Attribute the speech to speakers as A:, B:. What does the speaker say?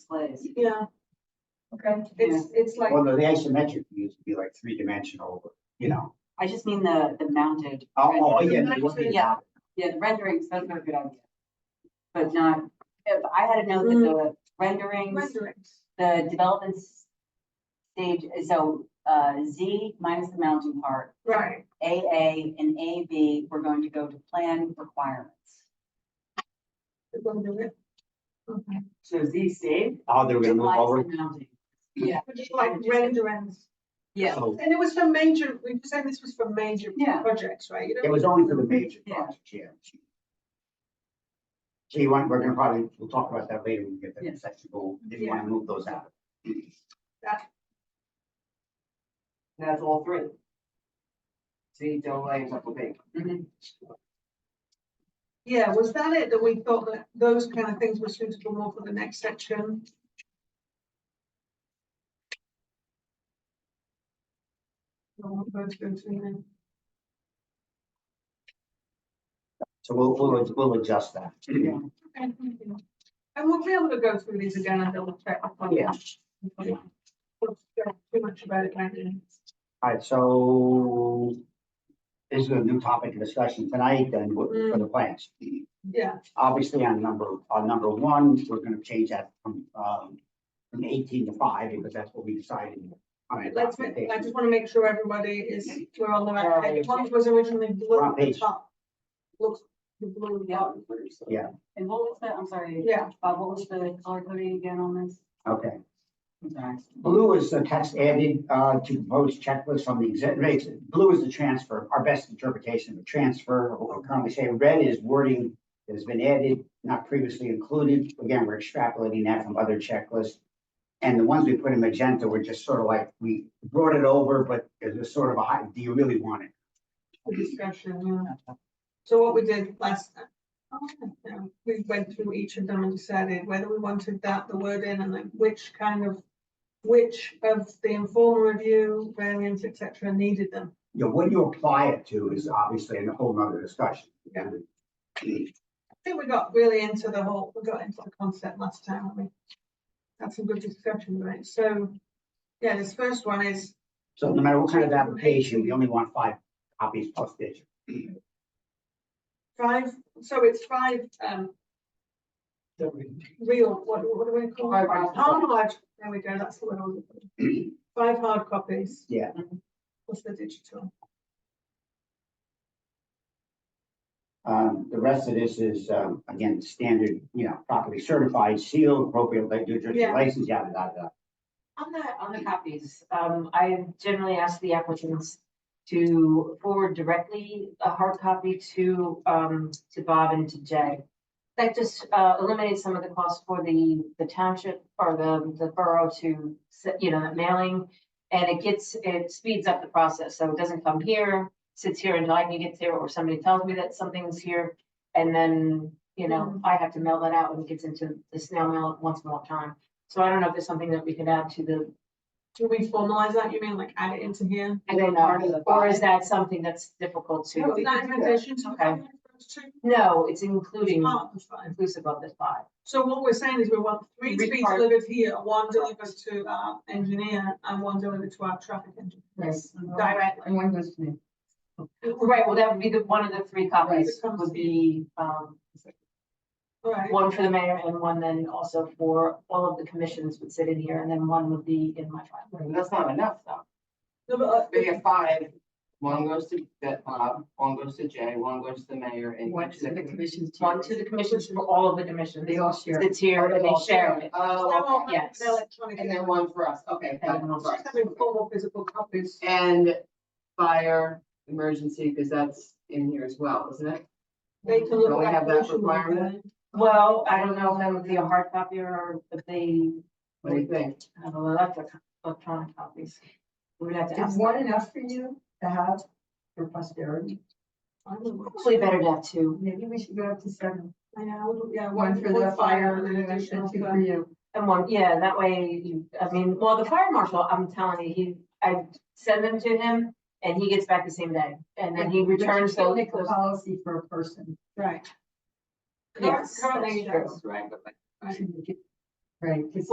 A: displays.
B: Yeah,
C: Okay.
B: it's, it's like,
D: Well, no, the isometric views would be like three dimensional, you know.
A: I just mean the, the mounted.
D: Oh,
A: rendering.
D: oh, yeah. no, you want me to-
A: Yeah. Yeah, the renderings, those are a good idea. But not, if I had to note that the renderings,
B: renderings.
A: the development s- stage, so uh, Z minus the mounting part,
B: right,
A: AA and AB, we're going to go to plan requirements.
B: we're gonna do it. Mm-hmm.
A: So Z stayed.
D: Oh, they're gonna move over.
A: Minus the mounting. Yeah,
B: We're just like renderings.
A: yeah,
D: So
B: And it was for major, we were saying this was for major
A: Yeah.
B: projects, right? You
D: it
B: don't-
D: was only for the major
A: Yeah.
D: projects, yeah. So you want, we're gonna probably, we'll talk about that later when we get to
A: Yeah.
D: the section goal, if you wanna move those out.
E: That's all three. See, don't lay it up a big.
A: mhm.
B: Yeah, was that it, that we thought that those kind of things were suitable more for the next section? I want those to go to them.
D: So we'll, we'll, we'll adjust that.
A: Yeah.
B: Okay, thank you. And we'll be able to go through these again and double check.
D: Yeah.
B: We'll check Too much about it, right?
D: All right, so this is a new topic of discussion tonight then with- for
B: Mm.
D: the plans.
B: Yeah,
D: Obviously, on number, on number one, we're gonna change that from, um, from eighteen to five because that's what we decided. on the
B: let's, make- I
D: documentation.
B: just want to make sure everybody is, we're on the right
E: Yeah,
B: page.
E: yeah.
B: One was originally blue at
D: Front
B: the
D: page.
B: top. Looks the blue, yeah,
A: And what was the, I'm sorry,
B: yeah,
A: Bob, what was the color coding again on this?
D: Okay.
A: I'm sorry.
D: Blue is the text added uh, to proposed checklist from the exec, rates. blue is the transfer, our best interpretation of the transfer, what we're currently saying. Red is wording that has been added, not previously included. Again, we're extrapolating that from other checklists. And the ones we put in magenta were just sort of like, we brought it over, but it was sort of a, high- do you really want it?
B: the discussion, yeah. So what we did last, oh, yeah, we went through each of them and decided whether we wanted that, the word in, and like which kind of, which of the informal review, variants, et cetera, needed them.
D: You know, what you apply it to is obviously a whole nother discussion.
B: Yeah. I think we got really into the whole, we got into the concept last time, haven't we? That's some good discussion, right? So, yeah, this first one is,
D: So no matter what kind of application, we only want five copies plus digital.
B: Five, so it's five, um, real, what, what do we call it?
A: Hard copy.
B: Hard, there we go, that's the word. I was looking for. Five hard copies.
D: Yeah.
B: Plus the digital.
D: Um, the rest of this is, um, again, standard, you know, properly certified, sealed, appropriate, like, your
B: Yeah.
D: license, yada, yada, yada.
E: On the, on the copies, um, I generally ask the applicants to forward directly a hard copy to, um, to Bob and to Jay. That just, uh, eliminates some of the costs for the, the township or the, the borough to, se- you know, that mailing. And it gets, it speeds up the process, so it doesn't come here, sits here until I can get there, or somebody tells me that something's here. And then, you know, I have to mail that out when it gets into the snail mail once more time. So I don't know if there's something that we could add to the,
B: Do we formalize that? You mean like add it into here?
E: I don't
A: Part of
E: know,
A: the
E: or is
A: file.
E: that something that's difficult
B: No,
E: to?
B: it's not invitation to
E: Okay.
B: have those two
E: No, it's including,
B: part of that.
E: inclusive of the five.
B: So what we're saying is we want three to
A: Three
B: be
A: part-
B: delivered here, one delivered to our engineer and one delivered to our traffic engineer
E: Yes.
B: directly.
A: And one goes to me.
E: Right, well, that would be the, one of the three copies
B: Right.
E: would be, um,
B: All right,
E: one for the mayor and one then also for all of the commissions would sit in here and then one would be in my file.
F: That's not enough though.
B: No, but, uh,
F: We have five. One goes to that Bob, one goes to Jay, one goes to the mayor and.
A: One to the commission's.
E: One to the commissions for all of the commissions.
A: They all share.
E: It's here and they share it.
B: I
F: Oh,
B: want
F: okay.
B: my
E: yes.
B: electronic-
F: and then one for us, okay.
E: And
F: got
E: then one
F: it.
E: for
F: Right.
B: Just having formal physical copies.
F: And fire, emergency, because that's in here as well, isn't it?
B: They can look
F: Don't we
B: like
F: have that
B: motion
F: requirement?
E: Well, I don't know if that would be a hard copy or if they
F: What do you think?
E: have electric, electronic copies. We would have to
A: Is
E: ask.
A: one enough for you to have for posterity?
B: I don't know.
E: Probably better to have two.
A: Maybe we should go up to seven.
B: I know, yeah,
A: One for the fire
B: and
A: and
B: an
A: then
B: additional
A: two
B: for-
A: for you.
E: And one, yeah, that way you, I mean, well, the fire marshal, I'm telling you, he, I send them to him and he gets back the same day. And then he
A: But you
E: returns
A: can't
E: those.
A: Make a
E: those-
A: policy for a person.
B: Right.
E: Yes,
B: Currently,
E: that's true.
B: that's right, but like, right.
A: Right, 'cause